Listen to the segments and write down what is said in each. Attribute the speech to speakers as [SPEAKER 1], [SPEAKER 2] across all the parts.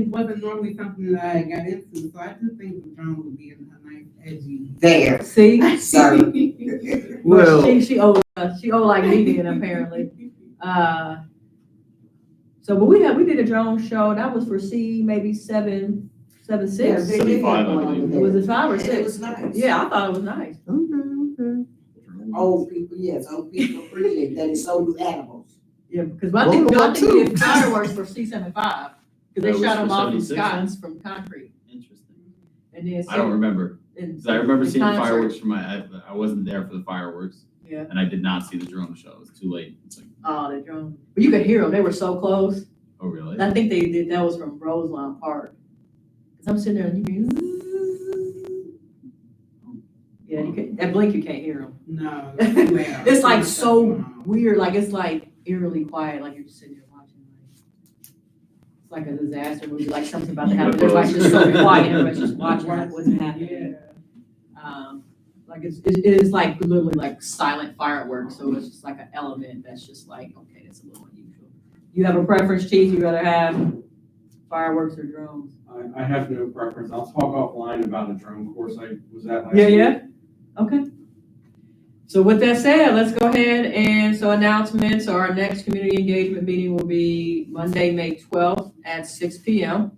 [SPEAKER 1] It wasn't normally something that I got into, so I just think the drama would be a nice edgy.
[SPEAKER 2] there.
[SPEAKER 3] See?
[SPEAKER 2] So-
[SPEAKER 3] Well,
[SPEAKER 4] Well,
[SPEAKER 3] she, she old, uh, she old like me then apparently. Uh, so, but we had, we did a drone show, that was for C maybe seven, seven,
[SPEAKER 2] Yeah,
[SPEAKER 3] six.
[SPEAKER 2] they did have
[SPEAKER 5] Five, I
[SPEAKER 2] one
[SPEAKER 5] believe.
[SPEAKER 2] over there.
[SPEAKER 3] Was it five or
[SPEAKER 2] And It
[SPEAKER 3] six?
[SPEAKER 2] was nice.
[SPEAKER 3] Yeah, I thought it was nice.
[SPEAKER 2] Old people, yes, old people appreciate that, and so do animals.
[SPEAKER 3] Yeah, because I think,
[SPEAKER 4] Well,
[SPEAKER 3] I think we
[SPEAKER 4] too.
[SPEAKER 3] did fireworks for C seventy-five,
[SPEAKER 5] That
[SPEAKER 3] because
[SPEAKER 5] was
[SPEAKER 3] they shot
[SPEAKER 5] for
[SPEAKER 3] them off in
[SPEAKER 5] 76,
[SPEAKER 3] Scott's from concrete.
[SPEAKER 5] Interesting.
[SPEAKER 3] And then.
[SPEAKER 5] I don't remember,
[SPEAKER 3] and-
[SPEAKER 5] because I remember
[SPEAKER 3] The
[SPEAKER 5] seeing
[SPEAKER 3] concert.
[SPEAKER 5] fireworks from my, I- I wasn't there for the fireworks,
[SPEAKER 3] Yeah,
[SPEAKER 5] and I did not see the drone show. It was too late. It's like,
[SPEAKER 3] oh, the drone, but you could hear them, they were so close.
[SPEAKER 5] oh, really?
[SPEAKER 3] I think they did, that was from Roseland Park. Cause I'm sitting there and you can. Yeah, you can, that blink, you can't hear them.
[SPEAKER 1] No.
[SPEAKER 3] It's like so weird, like it's like eerily quiet, like you're just sitting there watching. like- It's like a disaster movie, like something about to happen, everybody's just so quiet, everybody's just watching like what's happening. Um, like it's, it it is like literally like silent fireworks, so it's just like an element that's just like, okay, that's a little unusual. You have a preference, Chief, you rather have fireworks or drones?
[SPEAKER 6] I, I have no preference. I'll talk offline about a drone course I was at last
[SPEAKER 3] Yeah,
[SPEAKER 6] week.
[SPEAKER 3] yeah, okay. So with that said, let's go ahead and, so announcements, our next community engagement meeting will be Monday, May twelfth at six P M.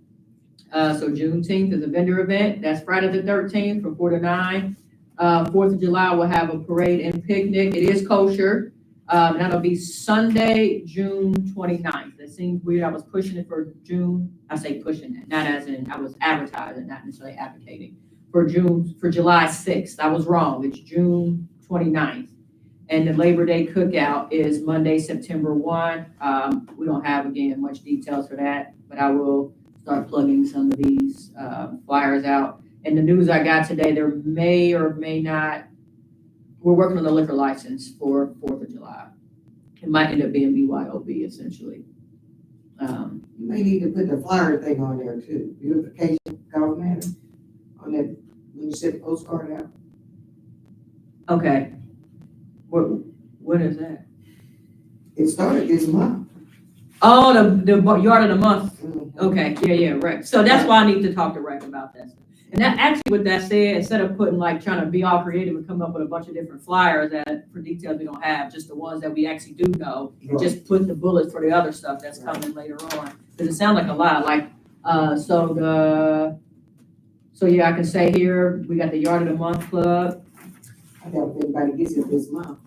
[SPEAKER 3] Uh, so Juneteenth is a vendor event, that's Friday the thirteenth from four to nine. Uh, Fourth of July, we'll have a parade and picnic, it is kosher. Um, that'll be Sunday, June 29th. That seems weird, I was pushing it for June, I say pushing it, not as in, I was advertising, not necessarily advocating for June, for July sixth. I was wrong. It's June 29th. And the Labor Day cookout is Monday, September one. Um, we don't have again much details for that, but I will start plugging some of these, uh, flyers out. And the news I got today, there may or may not, we're working on the liquor license for Fourth of July. It might end up being BYOB essentially. Um,
[SPEAKER 2] You may need to put the flyer thing on there too, beautification, government, on that, when you send the postcard out.
[SPEAKER 3] okay. What, what is that?
[SPEAKER 2] It started this month.
[SPEAKER 3] Oh, the, the yard of the month
[SPEAKER 2] Mhm.
[SPEAKER 3] Okay, yeah, yeah, right. So that's why I need to talk to Rick about that. And that, actually, with that said, instead of putting, like, trying to be all creative and come up with a bunch of different flyers that, for details we don't have, just the ones that we actually do know, and just put the bullets for the other stuff that's coming later on. Because it sounds like a lot, like, uh, so the, so yeah, I can say here, we got the Yard of the Month Club.
[SPEAKER 2] I doubt if anybody gets it this month.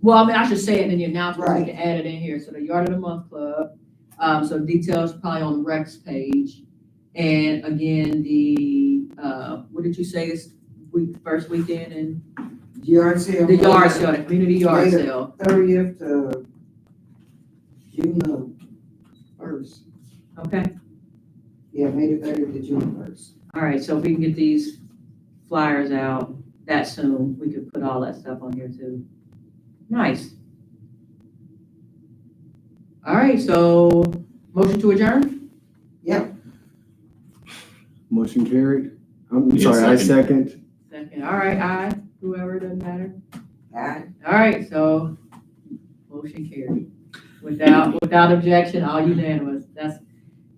[SPEAKER 3] Well, I mean, I should say it in the announcement, we
[SPEAKER 2] Right.
[SPEAKER 3] can add it in here. So the Yard of the Month Club, um, so details probably on Rex page. And again, the, uh, what did you say is week, first weekend and
[SPEAKER 2] Yard sale.
[SPEAKER 3] the yard sale, the community yard
[SPEAKER 2] Later.
[SPEAKER 3] sale.
[SPEAKER 2] Thirtieth to June the first.
[SPEAKER 3] Okay,
[SPEAKER 2] Yeah, May the thirtieth to June first.
[SPEAKER 3] all right, so if we can get these flyers out that soon, we could put all that stuff on here too. Nice. All right, so motion to adjourn?
[SPEAKER 4] motion carried. I'm
[SPEAKER 5] Need a
[SPEAKER 4] sorry, I second.
[SPEAKER 3] Second, all right, aye, whoever, doesn't matter.
[SPEAKER 2] Aye.
[SPEAKER 3] All right, so motion carried. Without, without objection, all unanimous. That's,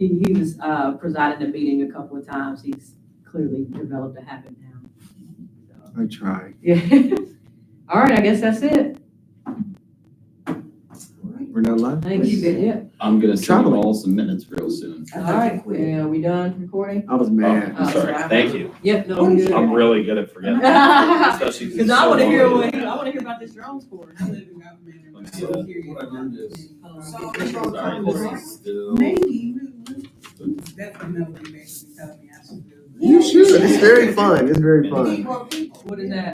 [SPEAKER 3] he, he was, uh, presiding the meeting a couple of times. He's clearly developed a habit now.
[SPEAKER 4] I tried.
[SPEAKER 3] So, Yeah. All right, I guess that's it.
[SPEAKER 2] All right.
[SPEAKER 4] We're not live?
[SPEAKER 3] Thank you. Yeah.
[SPEAKER 5] I'm gonna send you
[SPEAKER 4] Traveling.
[SPEAKER 5] all some minutes real soon.
[SPEAKER 2] I
[SPEAKER 3] All
[SPEAKER 2] thought you
[SPEAKER 3] right,
[SPEAKER 2] quit.
[SPEAKER 3] yeah, we done recording?
[SPEAKER 4] I was
[SPEAKER 5] Oh,
[SPEAKER 4] mad.
[SPEAKER 3] Oh,
[SPEAKER 5] I'm sorry.
[SPEAKER 2] sorry.
[SPEAKER 5] Thank you.
[SPEAKER 3] Yep, no, we
[SPEAKER 5] I'm
[SPEAKER 3] good.
[SPEAKER 5] really good at forgetting. Especially
[SPEAKER 3] Cause I
[SPEAKER 5] so
[SPEAKER 3] wanna hear
[SPEAKER 5] long.
[SPEAKER 3] what, I wanna hear about this drone score.
[SPEAKER 1] I live in government. and
[SPEAKER 5] Let me see
[SPEAKER 1] I'm
[SPEAKER 5] that.
[SPEAKER 1] curious.
[SPEAKER 6] What I learned is-
[SPEAKER 1] So,
[SPEAKER 5] Sorry, this is still-
[SPEAKER 1] Maybe, that's another thing they should be telling me I should do.
[SPEAKER 4] You should. It's very fun. It's very fun.
[SPEAKER 2] Need more people.
[SPEAKER 3] What is that?